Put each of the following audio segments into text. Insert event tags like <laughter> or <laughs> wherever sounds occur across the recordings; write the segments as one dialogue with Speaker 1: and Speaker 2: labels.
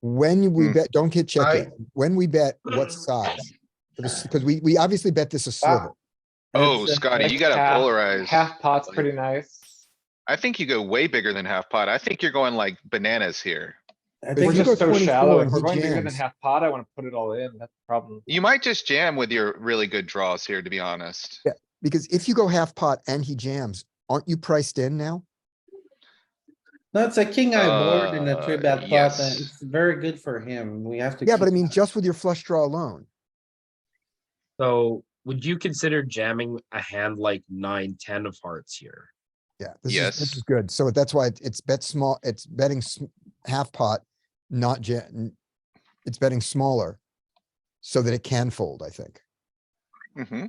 Speaker 1: When we
Speaker 2: Hmm.
Speaker 1: bet, don't get
Speaker 2: I-
Speaker 1: checking. When we bet, what size? Because we, we obviously bet this is sliver.
Speaker 2: Oh,
Speaker 3: It's, uh,
Speaker 2: Scotty,
Speaker 3: like
Speaker 2: you gotta
Speaker 3: half-
Speaker 2: polarize.
Speaker 3: Half pot's
Speaker 2: Like-
Speaker 3: pretty nice.
Speaker 2: I think you go way bigger than half pot. I think you're going like bananas here.
Speaker 4: I
Speaker 1: If
Speaker 3: We're
Speaker 1: you
Speaker 4: think
Speaker 1: go
Speaker 3: just so
Speaker 1: 24
Speaker 3: shallow.
Speaker 1: and
Speaker 3: If we're
Speaker 1: he
Speaker 3: going bigger than
Speaker 1: jams.
Speaker 3: half pot, I wanna put it all in. That's the problem.
Speaker 2: You might just jam with your really good draws here, to be honest.
Speaker 1: Because if you go half pot and he jams, aren't you priced in now?
Speaker 4: that's a king eye board in a three
Speaker 2: Uh,
Speaker 4: bet pot, and
Speaker 2: yes.
Speaker 4: it's very good for him. We have to.
Speaker 1: Yeah, but I
Speaker 4: keep
Speaker 1: mean,
Speaker 4: that.
Speaker 1: just with your flush draw alone.
Speaker 5: So would you consider jamming a hand like nine, ten of hearts here?
Speaker 1: Yeah, this is, this
Speaker 2: Yes.
Speaker 1: is good. So that's why it- it's bet small, it's betting sm- half pot, not jet. It's betting smaller so that it can fold, I think.
Speaker 2: Mhm.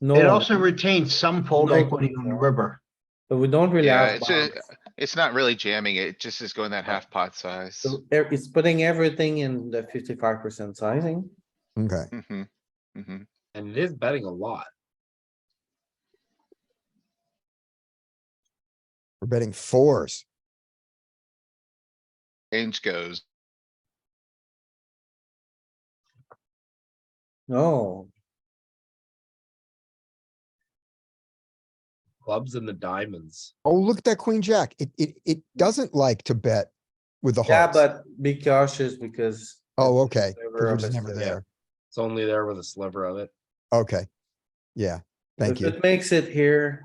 Speaker 4: No,
Speaker 6: It also retains some fold
Speaker 4: No.
Speaker 6: equity on the river.
Speaker 4: but we don't really
Speaker 2: Yeah,
Speaker 4: have
Speaker 2: it's a-
Speaker 4: bounds.
Speaker 2: It's not really jamming. It just is going that half pot size.
Speaker 4: So there- It's putting everything in the fifty-five percent sizing.
Speaker 1: Okay.
Speaker 2: Mhm. Mhm.
Speaker 5: And it is betting a lot.
Speaker 1: We're betting fours.
Speaker 2: Range goes.
Speaker 4: No,
Speaker 5: Clubs and the diamonds.
Speaker 1: Oh, look at that queen jack. It, it, it doesn't like to bet with the
Speaker 4: yeah,
Speaker 1: hearts.
Speaker 4: but be cautious because.
Speaker 1: Oh, okay. 'cause
Speaker 4: Sliver
Speaker 1: We're
Speaker 4: of
Speaker 1: just
Speaker 4: a
Speaker 1: never
Speaker 4: sliver.
Speaker 1: there.
Speaker 5: It's only there with a sliver of it.
Speaker 1: Okay. Yeah, thank
Speaker 4: If
Speaker 1: you.
Speaker 4: It makes it here.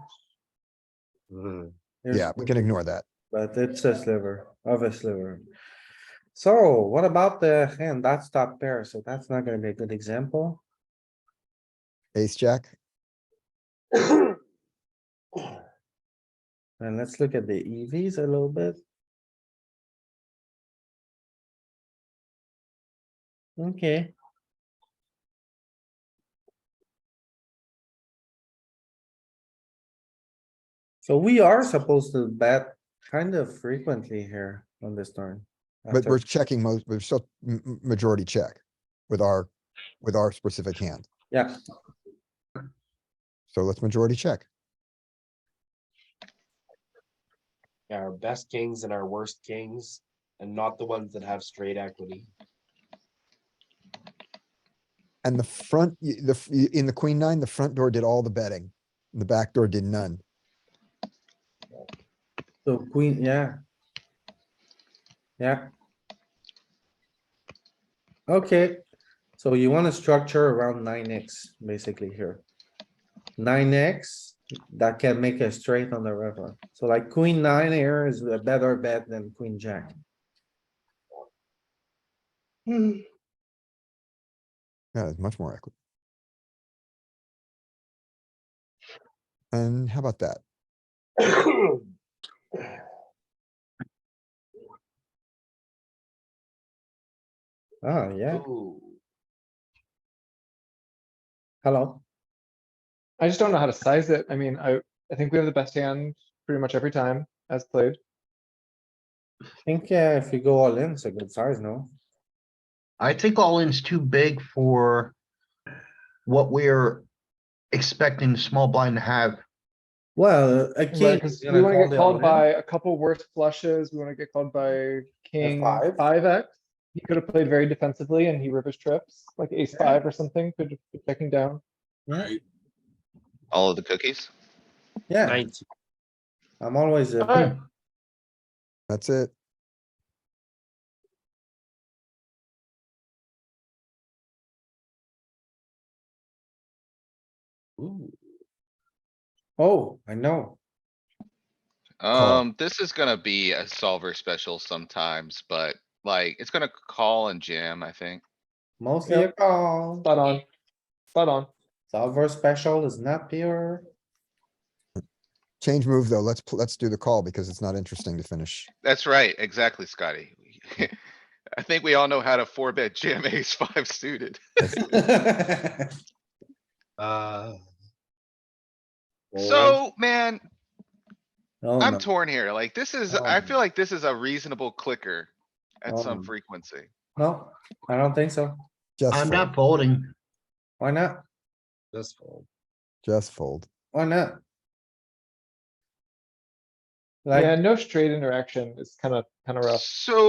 Speaker 5: Mhm.
Speaker 4: there's-
Speaker 1: Yeah, we can ignore that.
Speaker 4: But it's a sliver of a sliver. So what about the hand? That's top pair, so that's not gonna be a good example.
Speaker 1: Ace jack.
Speaker 4: And let's look at the EVs a little bit. Okay. So we are supposed to bet kind of frequently here on this turn.
Speaker 1: But
Speaker 4: after-
Speaker 1: we're checking most, we're still m- m- majority check with our, with our specific hand.
Speaker 4: Yeah,
Speaker 1: So let's majority check.
Speaker 5: Yeah, Our best kings and our worst kings, and not the ones that have straight equity.
Speaker 1: And the front, y- the, f- y- in the queen nine, the front door did all the betting. The back door did none.
Speaker 4: so queen, yeah. Yeah. Okay, so you wanna structure around nine X basically here. Nine X, that can make a straight on the river. So like queen nine here is a better bet than queen jack. Hmm,
Speaker 1: Yeah, there's much more equity. And how about that?
Speaker 4: oh, yeah,
Speaker 5: Ooh,
Speaker 4: hello.
Speaker 3: I just don't know how to size it. I mean, I, I think we have the best hand pretty much every time as played.
Speaker 4: I think uh, if you go all in, it's a good size, no?
Speaker 6: I think all in's too big for what we're expecting the small blind to have.
Speaker 4: Well, uh, a king.
Speaker 3: Right, cause
Speaker 4: is
Speaker 3: we
Speaker 4: gonna
Speaker 3: wanna
Speaker 4: call
Speaker 3: get
Speaker 4: the
Speaker 3: called
Speaker 4: all-in.
Speaker 3: by a couple worse flushes. We wanna get called by king
Speaker 4: five?
Speaker 3: five X. He could have played very defensively and he rivers trips, like ace five or something, could have been checking down.
Speaker 2: All of the cookies.
Speaker 4: Yeah,
Speaker 5: Nineteen.
Speaker 4: I'm always a
Speaker 3: Alright.
Speaker 4: king.
Speaker 1: That's it.
Speaker 5: Ooh,
Speaker 4: Oh, I know.
Speaker 1: Call.
Speaker 2: Um, this is gonna be a solver special sometimes, but like, it's gonna call and jam, I think.
Speaker 4: Mostly
Speaker 3: Yep.
Speaker 4: a call.
Speaker 3: Spot on. Spot on.
Speaker 4: Solver special is not pure.
Speaker 1: Change move though. Let's, pl- let's do the call because it's not interesting to finish.
Speaker 2: That's right, exactly, Scotty. <laughs> I think we all know how to four bet jam ace <laughs> five suited.
Speaker 5: uh. well,
Speaker 2: So, man,
Speaker 4: Oh,
Speaker 2: I'm
Speaker 4: no.
Speaker 2: torn here. Like, this is,
Speaker 4: Oh,
Speaker 2: I feel
Speaker 4: no.
Speaker 2: like this is a reasonable clicker at
Speaker 4: Oh,
Speaker 2: some
Speaker 4: no.
Speaker 2: frequency.
Speaker 4: No, I don't think so.
Speaker 1: Just,
Speaker 6: I'm
Speaker 1: fold.
Speaker 6: not folding.
Speaker 4: Why not?
Speaker 5: This fold.
Speaker 1: just fold.
Speaker 4: Why not? Like,
Speaker 3: Yeah, no straight interaction is kinda, kinda rough.
Speaker 2: So